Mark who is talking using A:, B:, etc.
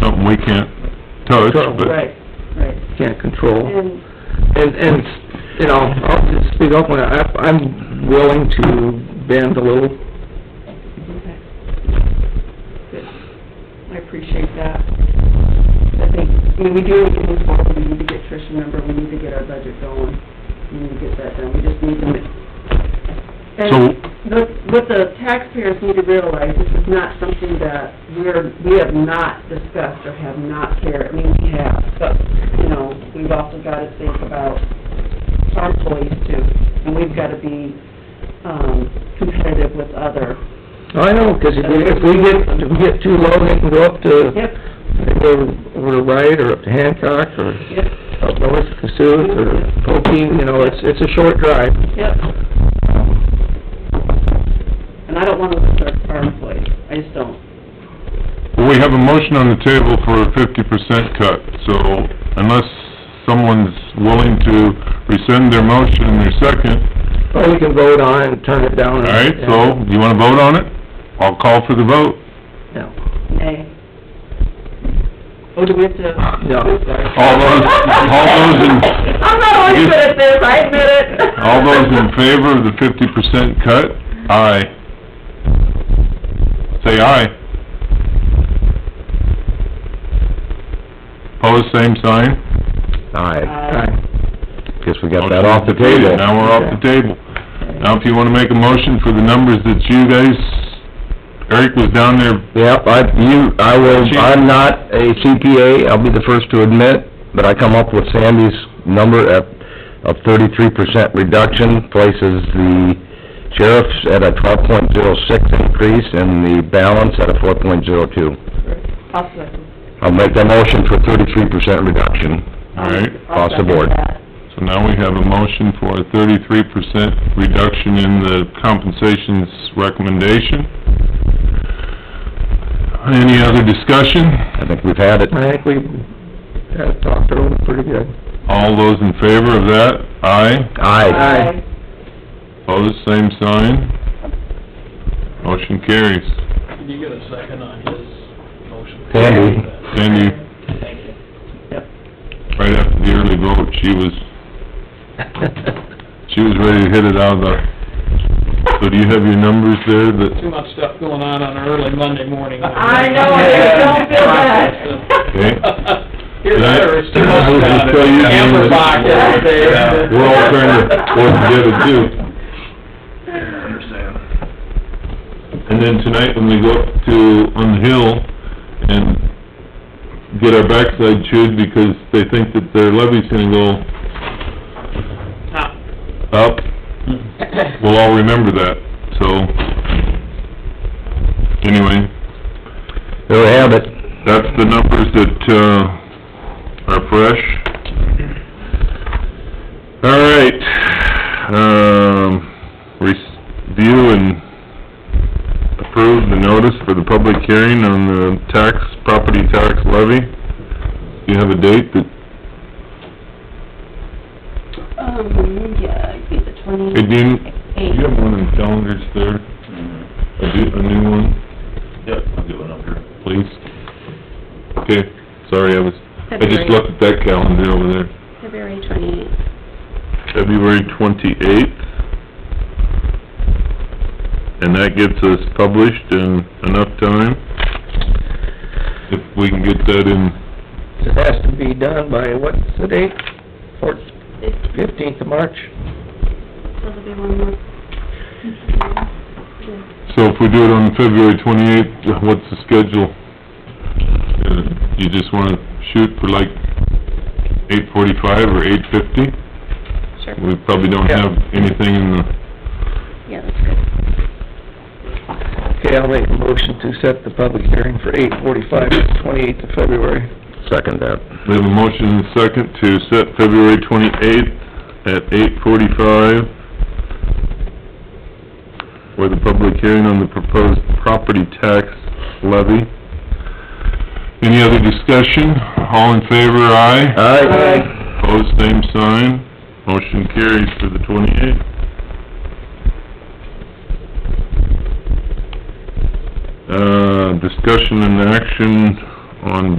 A: something we can't touch, but
B: Right, right.
C: can't control.
B: And,
C: And, and, you know, I'll just speak up when I, I'm willing to bend a little.
B: okay. Good. I appreciate that. I think, I mean, we do need to move forward, we need to get Trish a number, we need to get our budget going, we need to get that done, we just need to ma-
A: So-
B: And the- what the taxpayers need to realize, this is not something that we're, we have not discussed or have not cared, I mean, we have, but, you know, we've also got to think about our employees too, and we've got to be, um, competitive with other.
C: I know, 'cause if we, if we get, if we get too low, they can go up to,
B: Yep,
C: they go over to Wright or up to Hancock or
B: yep,
C: up north to Cassuth or Pokie, you know, it's, it's a short drive.
B: yep. And I don't want to lose our, our employees, I just don't.
A: we have a motion on the table for a fifty percent cut, so unless someone's willing to rescind their motion in their second,
C: Or we can vote on and turn it down.
A: all right, so, you wanna vote on it? I'll call for the vote.
C: No.
B: Nay. Oh, do we have to?
C: No.
B: I'm sorry.
A: All those, all those in...
B: I'm not always good at this, I admit it.
A: All those in favor of the fifty percent cut, aye. Say aye. Pose same sign.
D: Aye,
B: Aye.
D: guess we got that off the table.
A: Now we're off the table. Now, if you wanna make a motion for the numbers that you guys, Eric was down there,
D: Yep, I, you, I will, I'm not a CPA, I'll be the first to admit, but I come up with Sandy's number at, of thirty-three percent reduction, places the sheriff's at a twelve point zero six increase, and the balance at a four point zero two.
B: I'll second.
D: I'll make the motion for thirty-three percent reduction.
A: all right?
D: across the board.
A: So now we have a motion for a thirty-three percent reduction in the compensations recommendation. Any other discussion?
D: I think we've had it.
C: I think we have talked it over pretty good.
A: All those in favor of that, aye.
D: Aye.
C: Aye.
A: Opposed, same sign. Motion carries.
E: Did you get a second on his motion?
D: Sandy.
A: Sandy,
E: Thank you.
A: right after the early vote, she was, she was ready to hit it out of the... So do you have your numbers there that...
E: Too much stuff going on on an early Monday morning.
B: I know, I don't feel bad.
A: Okay.
E: Here's
A: That-
E: ours, too
A: I was
E: much
A: just
E: about
A: tell you,
E: it. Amber
A: Jim,
E: Bach over there.
A: We're all trying to work together too.
E: Understand.
A: And then tonight, when we go up to, on the hill and get our backside chewed because they think that their levy's gonna go up, we'll all remember that, so, anyway,
D: There we have it.
A: that's the numbers that, uh, are fresh. All right, um, review and approve the notice for the public hearing on the tax, property tax levy. Do you have a date that,
F: Um, yeah, it'd be the
A: hey,
F: twenty-eighth.
A: Dean, do you have one of the calendars there? A do, a new one? Yep, I'll get one up here. Please. Okay, sorry, I was, I just
F: February-
A: looked at that calendar over there.
F: February twenty-eighth.
A: February twenty-eighth. And that gets us published in enough time, if we can get that in,
C: It has to be done by, what's the date? Fourth, fifteenth of March?
F: That'll be one more.
A: so if we do it on February twenty-eighth, what's the schedule? Uh, You just wanna shoot for like eight forty-five or eight fifty?
F: Sure,
A: We probably don't have anything in the,
F: yeah, that's good.
C: Okay, I'll make a motion to set the public hearing for eight forty-five, twenty-eighth of February.
D: Second that.
A: we have a motion and a second to set February twenty-eighth at eight forty-five for the public hearing on the proposed property tax levy. Any other discussion? All in favor, aye?
D: Aye.
A: Opposed, same sign. Motion carries for the twenty-eighth. Uh, discussion and action on